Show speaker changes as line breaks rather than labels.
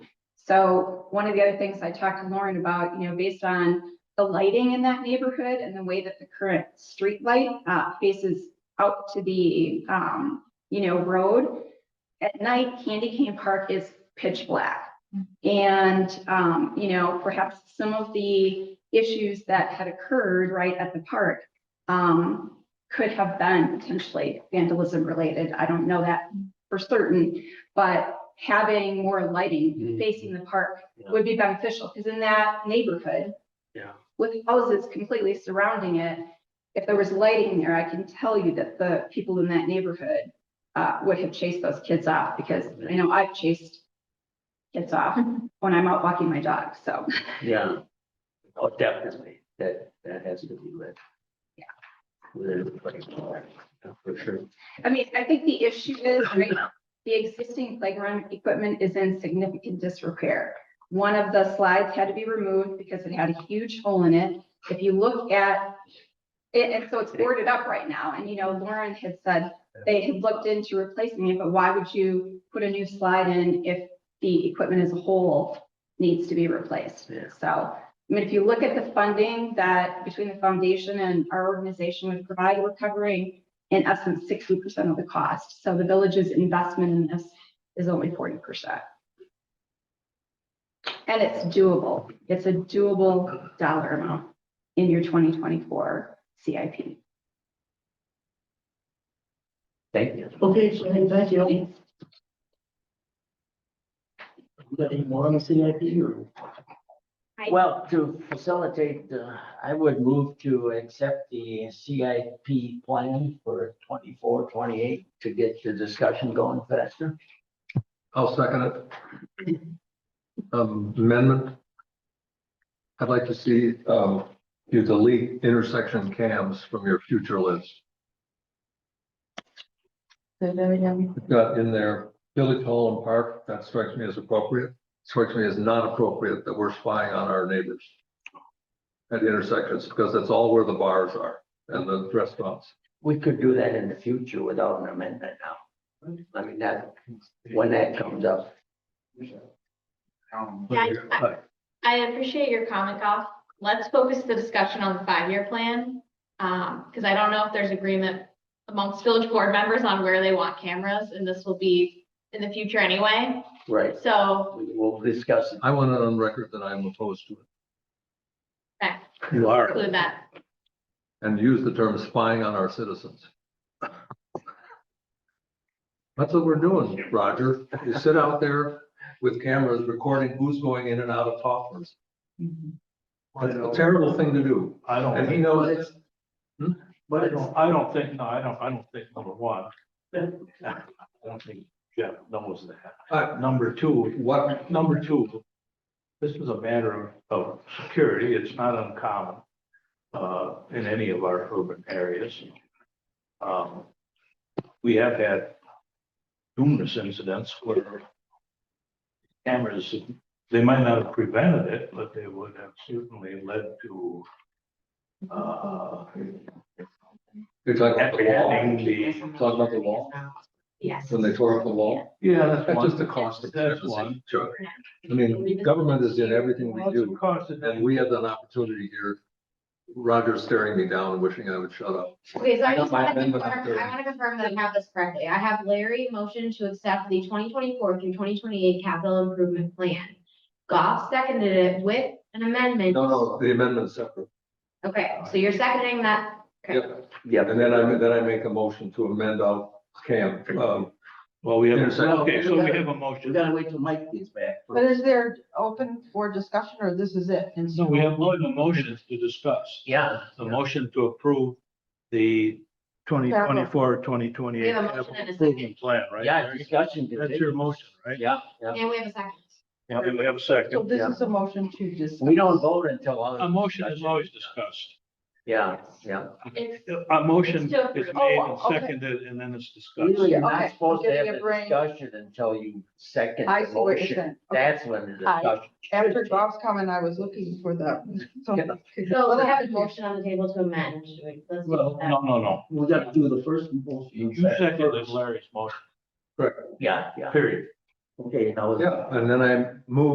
So one of the other things I talked to Lauren about, you know, based on the lighting in that neighborhood and the way that the current street light uh, faces out to the, um, you know, road. At night, Candy Cane Park is pitch black. And, um, you know, perhaps some of the issues that had occurred right at the park, um, could have been potentially vandalism related. I don't know that for certain, but having more lighting
Mhm.
facing the park would be beneficial, because in that neighborhood.
Yeah.
With houses completely surrounding it, if there was lighting there, I can tell you that the people in that neighborhood. Uh, would have chased those kids off, because I know I've chased. Kids off when I'm out walking my dog, so,
Yeah. Oh, definitely, that, that has to be lit.
Yeah.
With, like, yeah, For sure.
I mean, I think the issue is, right, the existing playground equipment is in significant disrepair. One of the slides had to be removed because it had a huge hole in it. If you look at it, and so it's boarded up right now, and you know, Lauren had said they had looked into replacing it, but why would you put a new slide in if the equipment as a whole needs to be replaced?
Yeah.
So, I mean, if you look at the funding that between the foundation and our organization would provide, we're covering in essence sixty percent of the cost. So the village's investment in this is only forty percent. And it's doable. It's a doable dollar amount in your twenty twenty-four CIP.
Thank you.
Okay, so hey, thank you. You got any more on the CIP or?
Well, to facilitate, uh, I would move to accept the CIP plan for 24, 28 to get the discussion going faster.
I'll second it. Um, amendment. I'd like to see, um, you delete intersection cams from your future list. We've Got in there, Village Hall and Park, that strikes me as appropriate, strikes me as not appropriate that we're spying on our neighbors. At intersections, because that's all where the bars are and the restaurants.
We could do that in the future without an amendment now. I mean, that, when that comes up.
Yeah, I- I appreciate your comment, Goff. Let's focus the discussion on the five-year plan. Um, because I don't know if there's agreement amongst village board members on where they want cameras, and this will be in the future anyway.
Right,
So,
we- we'll discuss it.
I want it on record that I'm opposed to it
okay,
You are.
include that.
and use the term spying on our citizens. That's what we're doing, Roger. You sit out there with cameras recording who's going in and out of Hoffman's.
I
It's a
don't,
terrible thing to do.
I don't,
And he
think-
knows it's,
I
But it's,
don't, I don't think, no, I don't, I don't think, number one. I don't think Jeff knows
Uh,
that. Number two,
what,
number two, this is a matter of, of security. It's not uncommon uh, in any of our urban areas. Um, we have had numerous incidents where cameras, they might not have prevented it, but they would have certainly led to uh,
you're talking about the wall,
apprehending the,
talking about the wall,
Yes.
when they tore up the wall.
yeah, that's
That's
one.
just the cost of
That's one.
privacy, Chuck. I mean, government is in everything we
Well, it's
do,
a cost of
and we have an opportunity here. Roger's staring me down, wishing I would shut up.
Okay, so
I
I
don't
just want
mind
to
them, but
confirm,
I'm
I
thirty.
want to confirm that I have this correctly. I have Larry motion to accept the twenty twenty-four through twenty twenty-eight capital improvement plan. Goff seconded it with an amendment.
No, no, the amendment's separate.
Okay, so you're seconding that. Okay.
Yep.
yeah.
And then I, then I make a motion to amend out camp, um,
Well, we have,
Intersection.
okay, so we have a
We
motion.
gotta wait till Mike gets back.
But is there open for discussion or this is it? And
So we have a lot of motions to discuss.
Yeah.
The motion to approve the 2024, 2028
We have a motion and a second.
improvement plan, right?
Yeah, discussion.
That's your motion, right?
Yeah, yeah.
And we have a second.
Yeah, and we have a second.
So this is a motion to discuss.
We don't vote until.
A motion is always discussed.
Yeah, yeah.
It's-
A motion
It's still-
is made
Oh,
and
okay.
seconded and then it's
Usually
discussed.
you're
Okay,
not supposed to
give
have
me a
a
brain.
discussion until you second
I
the
see what you're
motion.
saying. Okay.
That's when the
Aye.
discussion.
After Bob's comment, I was looking for the. So
So we have a motion on the table to amend. Should we- let's do
Well,
that.
No, no, no.
We gotta do the first motion.
You seconded Larry's motion,
Yeah, yeah.
period.
Okay, now.
yeah, and then I move